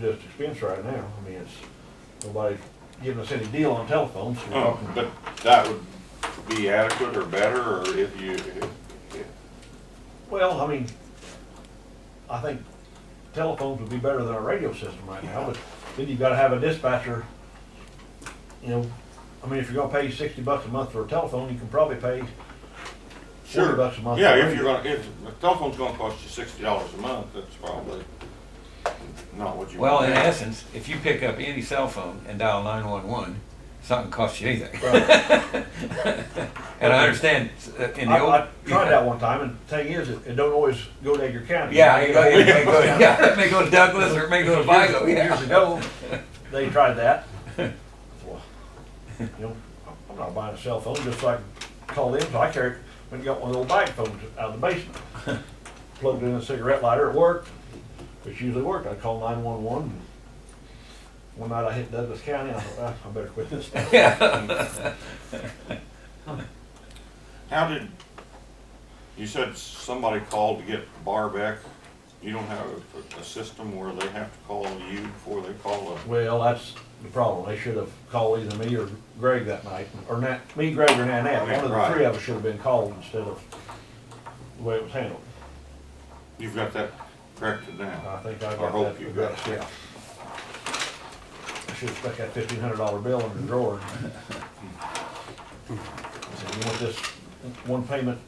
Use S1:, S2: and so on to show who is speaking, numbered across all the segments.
S1: just expense right now. I mean, it's, nobody's giving us any deal on telephones. so we're
S2: Oh,
S1: talking-
S2: but that would be adequate or better, or if you, if- if-
S1: Well, I mean, I think telephones would be better than our radio system right now, but then you've gotta have a dispatcher. You know, I mean, if you're gonna pay sixty bucks a month for a telephone, you can probably pay forty
S2: sure.
S1: bucks a month.
S2: Yeah,
S1: for
S2: if you're
S1: radio.
S2: gonna, if, the telephone's gonna cost you sixty dollars a month, that's probably not what you
S3: Well,
S2: want.
S3: in essence, if you pick up any cell phone and dial nine-one-one, it's not gonna cost you anything.
S1: Right.
S3: And I understand uh, in the
S1: I,
S3: old.
S1: I tried that one time, and the thing is, it, it don't always go to Edgar County.
S3: Yeah, it go- it may go, yeah, it may go to Douglas or it may go to Vigo,
S1: Years
S3: yeah.
S1: ago, they tried that. Well, You know, I'm not buying a cell phone, just so I can call them, so I carried, went and got one of the old bag phones out of the basement. Plugged in a cigarette lighter, it worked, which usually worked, I called nine one one. One night I hit Douglas County, I thought, "Ah, I better quit this.
S2: How did, you said somebody called to get bar back, you don't have a, a system where they have to call you before they call a,
S1: Well, that's the problem, they should have called either me or Greg that night, or Nat, me, Greg, or Nanette, one of the three of us should have been called instead of the way it was handled.
S2: you've got that corrected
S1: I
S2: now.
S1: think I
S2: I
S1: got
S2: hope
S1: that,
S2: you
S1: addressed,
S2: got it.
S1: yeah. I should've stuck that fifteen hundred dollar bill in the drawer. I said, you want this one payment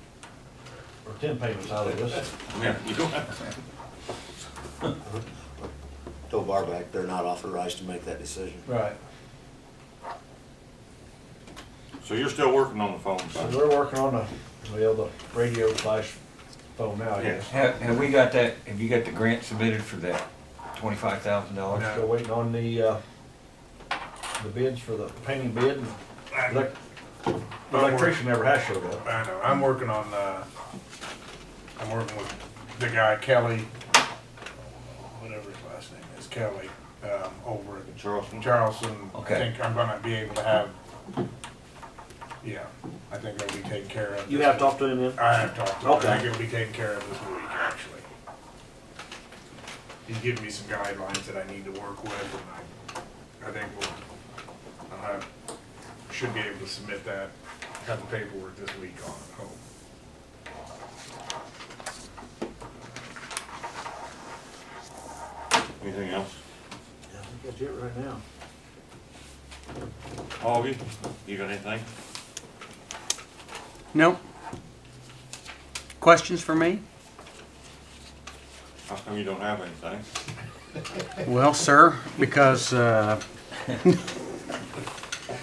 S1: or ten payments out of this?
S2: Yeah, you don't have,
S4: told Barback they're not authorized to make that decision.
S1: Right.
S2: so you're still working on the phone
S1: So
S2: side?
S1: we're working on the, well, the radio slash phone now, I guess.
S3: Have, have we got that, have you got the grant submitted for that twenty-five thousand dollars?
S1: We're still waiting on the, uh, the bids for the painting bid. and elec- the Electrician never has showed up.
S5: I know. I'm working on. Uh, I'm working with the guy Kelly, whatever his last name is, Kelly, um, over at
S2: Charleston?
S5: Charleston.
S3: Okay.
S5: I think I'm gonna be able to have. Yeah, I think it'll be taken care of.
S1: You
S5: this
S1: have
S5: week.
S1: talked to him yet?
S5: I have talked to him.
S1: Okay.
S5: I think it'll be taken care of this week, actually. He's giving me some guidelines that I need to work with, and I, I think we'll, I'll have, should be able to submit that, have the paperwork this week on, it, I hope.
S2: Anything else?
S1: I think that's it right now.
S2: Augie, you got anything?
S6: No. Questions for me?
S2: How come you don't have anything?
S6: Well, sir, because, uh,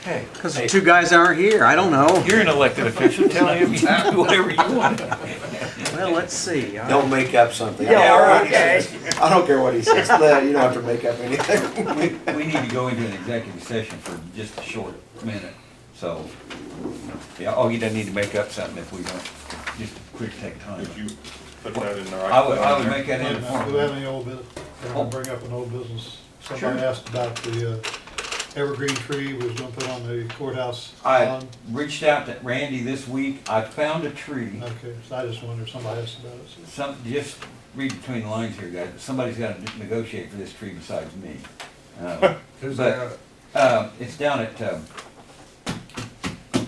S3: Hey,
S6: because the two guys aren't here. I don't know.
S3: you're an elected official, tell him you can do whatever you want.
S6: Well, let's see. I-
S4: Don't make up something.
S3: Yeah, all right,
S4: I don't care what he says. No, You don't have to make up anything.
S3: We, we need to go into an executive session for just a short minute, so, yeah, Augie doesn't need to make up something if we don't, just quick take time.
S2: Would you put that in the right?
S3: I would, I would
S2: there?
S3: make that in
S7: Do we have any old business? Can I bring up an old business? Somebody
S3: Oh. Sure.
S7: asked about the uh, evergreen tree we was gonna put on the courthouse
S3: I
S7: lawn.
S3: reached out to Randy this week, I found a tree,
S7: Okay, so I just wondered, somebody asked about it. so-
S3: some, just read between the lines here, guys, somebody's gotta negotiate for this tree besides me. Uh,
S5: Who's
S3: But-
S5: that?
S3: Uh, it's down at, um,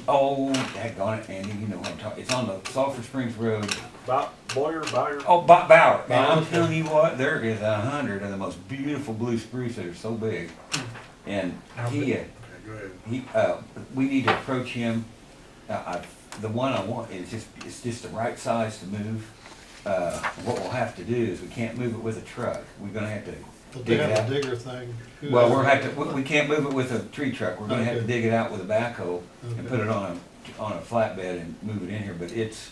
S3: oh, daggone it, Andy, you know what I'm talking, it's on the Sulphur Springs Road,
S1: Bow, Boyer, Byer?
S3: Oh, Bob Bauer. Man,
S1: Bauer.
S3: I'm telling you what, there is a hundred of the most beautiful blue spruce that are so big. And
S5: How
S3: he,
S5: big?
S3: uh,
S5: Okay, go ahead.
S3: he, uh, we need to approach him. Uh, I, the one I want is just, it's just the right size to move. Uh, what we'll have to do is we can't move it with a truck. We're gonna have to
S7: But
S3: dig
S7: they
S3: it
S7: have a
S3: out.
S7: digger thing. Who
S3: Well,
S7: has
S3: we're
S7: it?
S3: have to, we, we can't move it with a tree truck. We're gonna have to
S7: Okay.
S3: dig it out with a backhoe and
S7: Okay.
S3: put it on a, on a flatbed and move it in here, but it's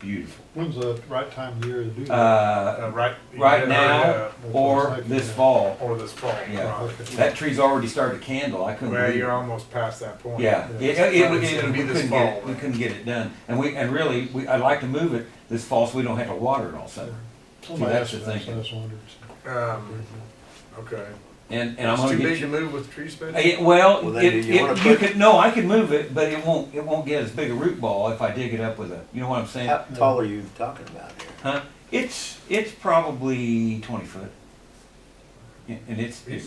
S3: beautiful.
S7: When's the right time of year to do that?
S3: Uh,
S5: Uh, right. you
S3: right
S5: had
S3: now
S5: heard,
S3: or this fall.
S5: uh, Or this fall.
S3: Yeah.
S5: right.
S7: Okay.
S3: That tree's already started to candle, I couldn't
S5: Well,
S3: believe
S5: you're
S3: it.
S5: almost past that point.
S3: Yeah, it, it, it-
S5: It's
S3: it-
S5: gonna
S3: we
S5: be this
S3: couldn't get,
S5: fall.
S3: it- we couldn't get it done. And we, and really, we, I'd like to move it this fall so we don't have to water it all summer.
S7: Somebody
S3: that's
S7: asked
S3: the
S7: about it, so I
S3: thing.
S7: just wondered.
S5: Um, okay.
S3: And, and I'm gonna
S5: It's too big
S3: get
S5: to
S3: you.
S5: move with tree space?
S3: Uh, yeah, Well,
S4: Well,
S3: it,
S4: then do you wanna
S3: it, you
S4: put-
S3: could, no, I can move it, but it won't, it won't get as big a root ball if I dig it up with a, you know what I'm saying?
S4: How tall are you talking about here?
S3: Huh? It's, it's probably twenty foot. And and it's, it's